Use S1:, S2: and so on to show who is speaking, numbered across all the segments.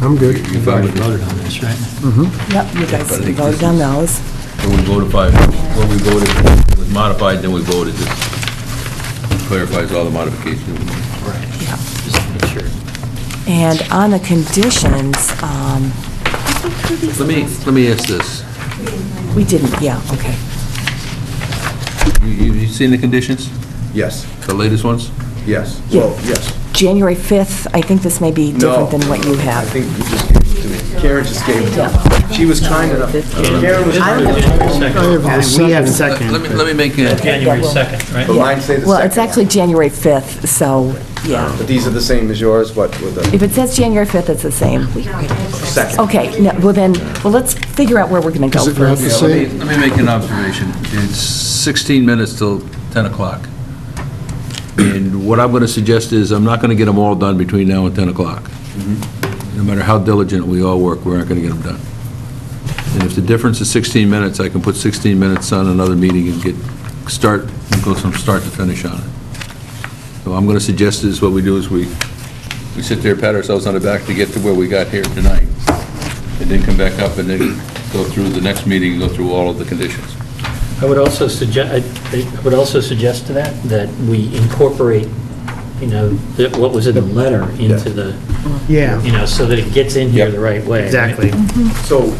S1: I'm good.
S2: You've already voted on this, right?
S3: Yep, you guys
S4: But I think
S3: voted
S4: this-
S3: on those.
S4: When we voted by, when we voted, it was modified, then we voted, this clarifies all the modifications.
S2: Right.
S3: Yeah.
S2: Just make sure.
S3: And on the conditions, um,
S4: Let me, let me ask this,
S3: we didn't, yeah, okay.
S4: you, you you seen the conditions,
S5: Yes,
S4: the latest ones?
S5: yes,
S3: Yeah.
S5: well, yes.
S3: January 5th, I think this may be different than what you
S5: I
S3: have.
S5: think you just gave it to me. Karen just gave it to me. She was kind enough. Karen was kind enough.
S1: We have
S4: Let me, let me make a,
S2: January 2nd, right?
S5: But mine say the second. Oh.
S3: Well, it's
S5: one.
S3: actually January 5th, so, yeah.
S5: But these are the same as yours, but with a
S3: If it says January 5th, it's the same.
S5: second.
S3: Okay, no, well then, well, let's figure out where we're going to
S1: Is
S3: go
S1: it not
S3: first.
S1: the
S4: yeah, let me,
S1: same?
S4: let me make an observation. It's 16 minutes till 10 o'clock. And what I'm going to suggest is, I'm not going to get them all done between now and 10 o'clock. No matter how diligent we all work, we're not going to get them done. And if the difference is 16 minutes, I can put 16 minutes on another meeting and get, start, and go from start to finish on it. So I'm going to suggest is, what we do is we, we sit there, pat ourselves on the back to get to where we got here tonight and then come back up and then go through the next meeting and go through all of the conditions.
S2: I would also suggest, I would also suggest to that, that we incorporate, you know, that what was in the letter into the, Uh, you
S1: Yeah,
S2: know, so that it gets in here the right way. right?
S1: exactly.
S5: So,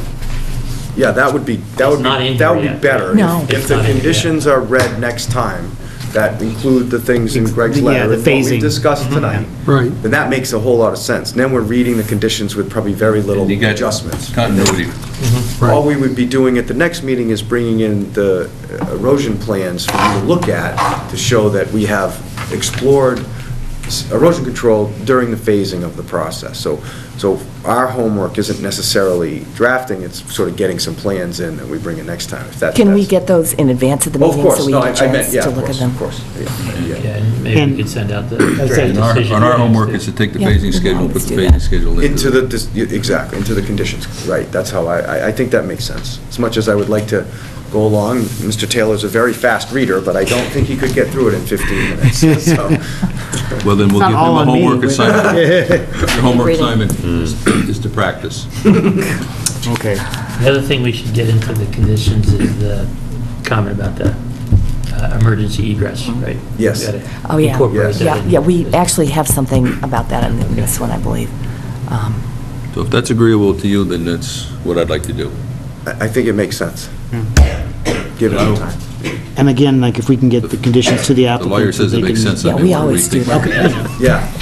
S5: yeah, that would be, that would
S2: It's not
S5: be,
S2: in here
S5: that would be
S2: yet.
S5: better.
S3: No.
S5: If- If
S2: It's
S5: the
S2: not in here yet.
S5: conditions are read next time, that include the things in Greg's
S1: Yeah,
S5: letter.
S1: the
S5: and what we
S1: phasing.
S2: Mm-hmm.
S5: discussed tonight.
S1: Right.
S5: Then that makes a whole lot of sense. Then we're reading the conditions with probably very little
S4: And you got
S5: adjustments.
S4: Continuity.
S5: All we would be doing at the next meeting is bringing in the erosion plans for you to look at to show that we have explored s- erosion control during the phasing of the process. So, so our homework isn't necessarily drafting, it's sort of getting some plans in that we bring in next time, if that.
S3: Can we
S5: that's-
S3: get those in advance of the
S5: Oh, Of
S3: meeting
S5: course,
S3: so we
S5: no,
S3: get
S5: I
S3: a
S5: I meant,
S3: chance
S5: yeah,
S3: to
S5: of
S3: look at
S5: course,
S3: them?
S5: of course. yeah, yeah.
S2: Yeah, and maybe we could send out the draft
S4: And our,
S2: decision.
S4: and our homework is to take the
S3: Yeah.
S4: phasing schedule, put the phasing schedule
S5: Into the, dis- yeah, exactly, into the conditions, right, that's how I, I- I think that makes sense. As much as I would like to go along, Mr. Taylor's a very fast reader, but I don't think he could get through it in 15 minutes, so.
S4: Well, then we'll
S1: It's not
S4: give them
S1: all
S4: a
S1: on me. Hmm.
S4: homework assignment. Your homework assignment is to practice.
S1: Okay.
S2: The other thing we should get into the conditions is the comment about the uh, emergency egress, right?
S5: Yes.
S2: We gotta
S3: Mm-hmm. Oh, yeah.
S2: incorporate
S5: Yes.
S2: that
S3: Yeah,
S2: in.
S3: yeah, we actually have something about that in this one, I believe. Um,
S4: So if that's agreeable to you, then that's what I'd like to do.
S5: I I think it makes sense.
S3: Hmm.
S5: Give it some time.
S6: And again, like, if we can get the conditions to the
S4: The
S6: applicant.
S4: lawyer says
S6: so
S4: it
S6: they
S4: makes
S6: can-
S4: sense. I
S3: Yeah,
S4: mean,
S3: we
S4: what
S3: always do
S4: rethink-
S3: that.
S5: Yeah,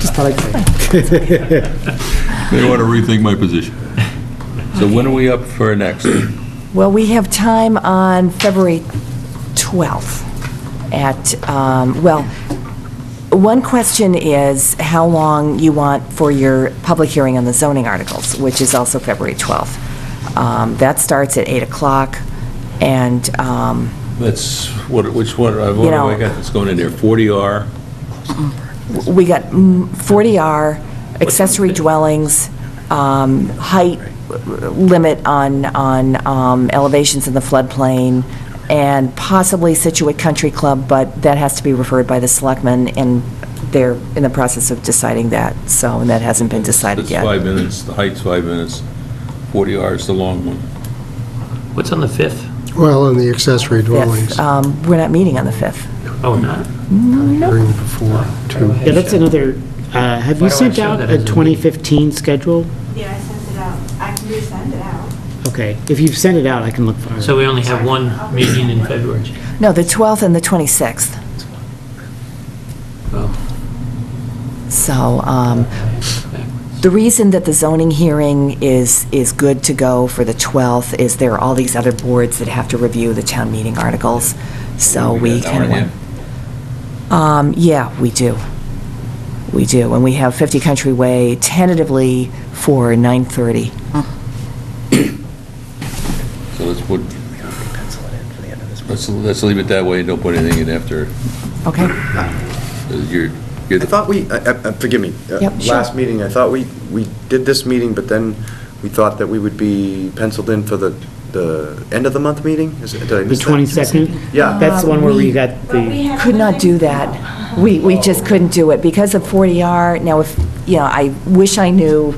S6: Just thought I'd say.
S4: They want to rethink my position. So when are we up for our next?
S3: Well, we have time on February 12th at, um, well, one question is how long you want for your public hearing on the zoning articles, which is also February 12th. Um, That starts at 8 o'clock, and, um,
S4: That's, what, which one, I've already
S3: know-
S4: got that's going in there, 40R,
S3: we got mm, 40R, accessory dwellings, um, height limit on, on um, elevations in the floodplain, and possibly Situate Country Club, but that has to be referred by the selectmen, and they're in the process of deciding that, so, and that hasn't been decided
S4: that's
S3: yet.
S4: five minutes, the height's five minutes, 40R is the long one.
S2: What's on the 5th?
S1: Well, and the accessory
S3: Yes,
S1: dwellings,
S3: um, We're not meeting on the 5th.
S2: Oh, not?
S1: hearing before, too.
S6: Yeah, that's another, uh, have
S2: Why
S6: you
S2: do I
S6: sent
S2: show
S6: out
S2: that
S6: a
S2: as a-
S6: 2015 schedule?
S7: Yeah, I sent it out. I can resend it out.
S6: Okay, if you've sent it out, I can look for it.
S2: So we only have one meeting in February.
S3: No, the 12th and the 26th,
S2: Oh.
S3: so, um, The reason that the zoning hearing is, is good to go for the 12th is there are all these other boards that have to review the town meeting articles, so
S4: Oh,
S3: we
S4: got an hour
S3: kind
S4: and
S3: of
S4: a
S3: want...
S4: half.
S3: Um, yeah, we do. We do, and we have 50 Country Way tentatively for 9:30.
S4: So let's put, let's, let's leave it that way, and don't put anything in after,
S3: Okay?
S4: uh, you're, you're
S5: I
S4: the,
S5: thought we, uh, uh, forgive me, uh,
S3: Yep, sure.
S5: last meeting, I thought we, we did this meeting, but then we thought that we would be penciled in for the, the end of the month meeting? Is it- did I
S6: The
S5: miss that?
S6: 22nd?
S5: Yeah.
S6: That's the one where
S2: Uh,
S3: we-
S6: we got the,
S3: Could not do that. We, we just couldn't do it because of 40R. Now, if, you know, I wish I knew